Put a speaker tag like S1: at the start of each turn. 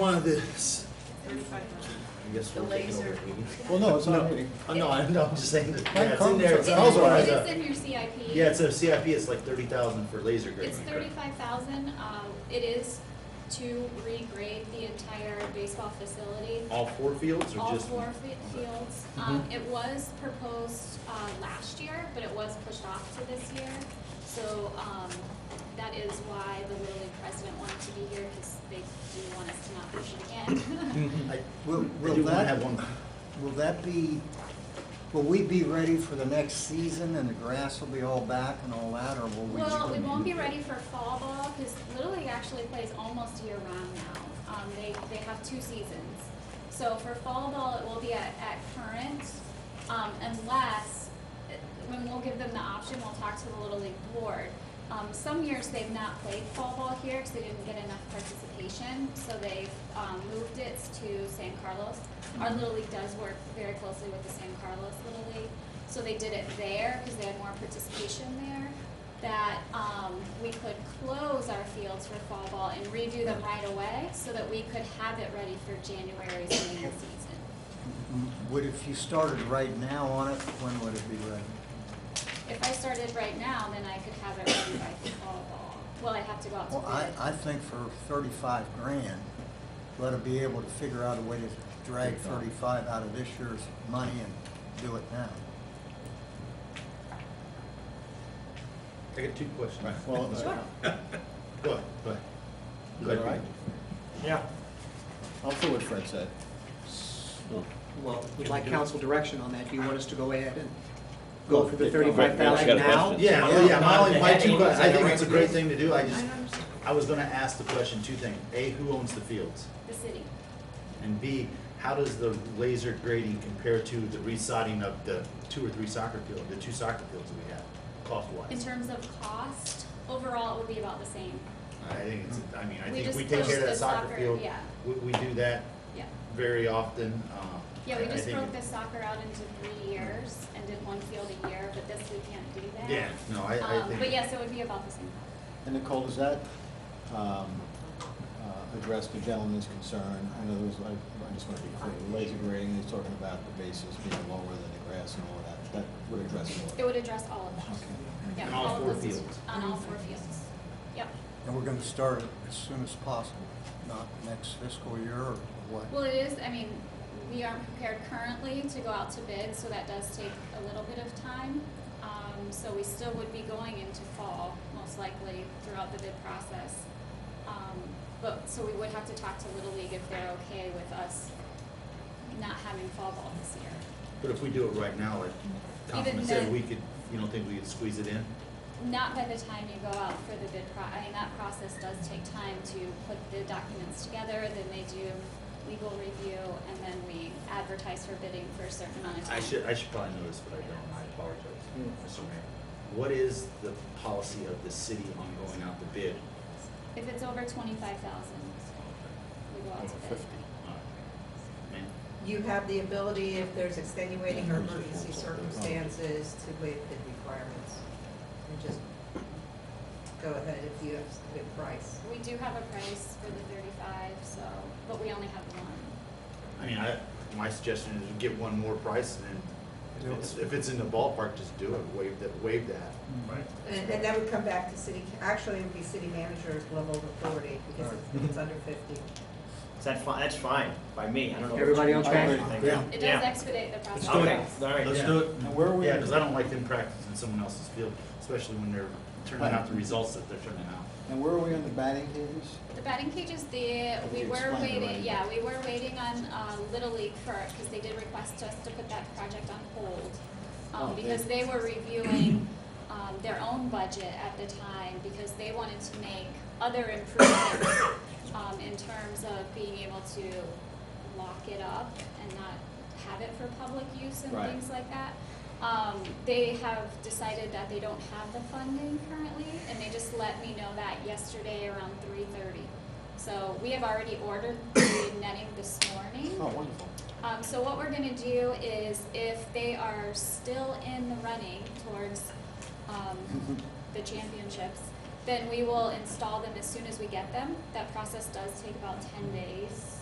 S1: One of this,
S2: I guess
S3: The
S2: we're taking
S3: laser.
S2: over the meeting.
S4: Well, no, it's not a meeting.
S1: oh, no, I'm not just saying that,
S4: My
S1: yeah, it's in there, it's
S4: comments are-
S1: also,
S4: Well,
S5: It's
S1: as
S5: it's
S1: a-
S5: in your CIP.
S1: yeah, it's a CIP, it's like thirty thousand for laser grading.
S5: It's thirty-five thousand, um, it is to regrade the entire baseball facility.
S1: All four fields or
S5: All
S1: just? Mm-hmm.
S5: four fi- fields, um, it was proposed, uh, last year, but it was pushed off to this year. So, um, that is why the Little League president wanted to be here, because they do want us to not push it again.
S1: I,
S4: Will,
S1: I
S4: will
S1: do wanna have
S4: that,
S1: one,
S4: will that be, will we be ready for the next season and the grass will be all back and all that, or will we?
S5: Well, we won't be ready for fall ball because Little League actually plays almost year round now. Um, they, they have two seasons. So for fall ball, it will be at, at current, um, unless, uh, when we'll give them the option, we'll talk to the Little League board. Um, some years they've not played fall ball here because they didn't get enough participation, so they've, um, moved it to San Carlos. Our Little League does work very closely with the San Carlos Little League, so they did it there because they had more participation there that um, we could close our fields for fall ball and redo them right away so that we could have it ready for January's main season.
S4: Mm, Would, if you started right now on it, when would it be ready?
S5: If I started right now, then I could have it ready by fall ball. Well, I'd have to go out to
S4: Well, I, I
S5: bid.
S4: think for thirty-five grand, let it be able to figure out a way to drag thirty-five out of this year's money and do it now.
S1: I got two questions.
S2: Well,
S5: Sure.
S1: Go ahead, go ahead. Go
S2: Is that
S1: ahead.
S2: all right?
S6: Yeah,
S2: I'll put what Fred said.
S7: Well, we'd like council direction on that. Do you want us to go ahead and go for the thirty-five
S2: Right, I
S7: thousand
S2: got a
S7: now?
S2: question.
S1: Yeah, well, yeah, my, only- my two
S6: Yeah.
S1: questions, I think it's a great thing to do, I
S3: I
S1: just,
S3: don't understand.
S1: I was gonna ask the question, two things, A, who owns the fields?
S5: The city.
S1: And B, how does the laser grading compare to the resodding of the two or three soccer field, the two soccer fields that we have, cost
S5: In
S1: wise?
S5: terms of cost, overall, it would be about the same.
S1: I think it's, I mean, I
S5: We
S1: think
S5: just
S1: we take care
S5: closed
S1: of
S5: the
S1: that soccer
S5: soccer,
S1: field,
S5: yeah.
S1: we, we do that
S5: Yeah.
S1: very often, um.
S5: Yeah, we
S1: I- I
S5: just
S1: think-
S5: broke the soccer out into three years and did one field a year, but this we can't do that.
S1: Yeah, no, I, I
S5: Um,
S1: think.
S5: But yes, it would be about the same.
S2: And Nicole, does that um, uh, address the gentleman's concern? I know there was, I I just want to be clear, the laser grading, he's talking about the bases being lower than the grass and all that. That would address all
S5: It
S2: that.
S5: would address all of that.
S2: Okay.
S5: Yeah,
S1: On all four
S5: of those-
S1: fields.
S5: On all four fields. Yep.
S4: And we're gonna start it as soon as possible, not next fiscal year or what?
S5: Well, it is, I mean, we aren't prepared currently to go out to bid, so that does take a little bit of time. Um, so we still would be going into fall, most likely, throughout the bid process. Um, but, so we would have to talk to Little League if they're okay with us not having fall ball this year.
S1: But if we do it right now, like Councilman
S5: Even
S1: said,
S5: then-
S1: we could, you don't think we could squeeze it in?
S5: Not by the time you go out for the bid pro, I mean, that process does take time to put the documents together, then they do legal review, and then we advertise for bidding for a certain amount of time.
S1: I should, I should probably know this, but I don't, I apologize. Mr. Mayor, what is the policy of the city on going out to bid?
S5: If it's over twenty-five thousand, we go out to bid.
S1: Ma'am?
S3: You have the ability, if there's extenuating or emergency circumstances, to waive bid requirements. And just go ahead if you have a good price.
S5: We do have a price for the thirty-five, so, but we only have one.
S1: I mean, I, my suggestion is get one more price and then if it's, if it's in the ballpark, just do it, waive that, waive that. Right.
S3: And, and that would come back to city, actually, it would be city manager's level of authority, because it's, it's under fifty.
S6: is that fine? That's fine by me. I don't know. what
S7: Everybody
S6: you-
S7: on
S6: what
S7: track?
S6: you think.
S4: Yeah.
S5: It does
S6: Yeah.
S5: expedite the process.
S6: Okay, all right.
S1: Let's
S6: yeah.
S1: do it.
S4: And where are we?
S1: Yeah, because I don't like them practicing someone else's field, especially when they're turning out the results that they're turning out.
S2: And where are we on the batting cages?
S5: The batting cages, the, we
S2: You
S5: were
S2: explained already.
S5: waiting, yeah, we were waiting on, uh, Little League for, because they did request us to put that project on hold.
S2: Oh,
S5: Um,
S2: they-
S5: because they were reviewing, um, their own budget at the time, because they wanted to make other improvements, um, in terms of being able to lock it up and not have it for public use and
S2: Right.
S5: things like that. Um, they have decided that they don't have the funding currently, and they just let me know that yesterday around three thirty. So we have already ordered the netting this morning.
S2: Oh, wonderful.
S5: Um, so what we're gonna do is if they are still in the running towards, um, the championships, then we will install them as soon as we get them. That process does take about ten days.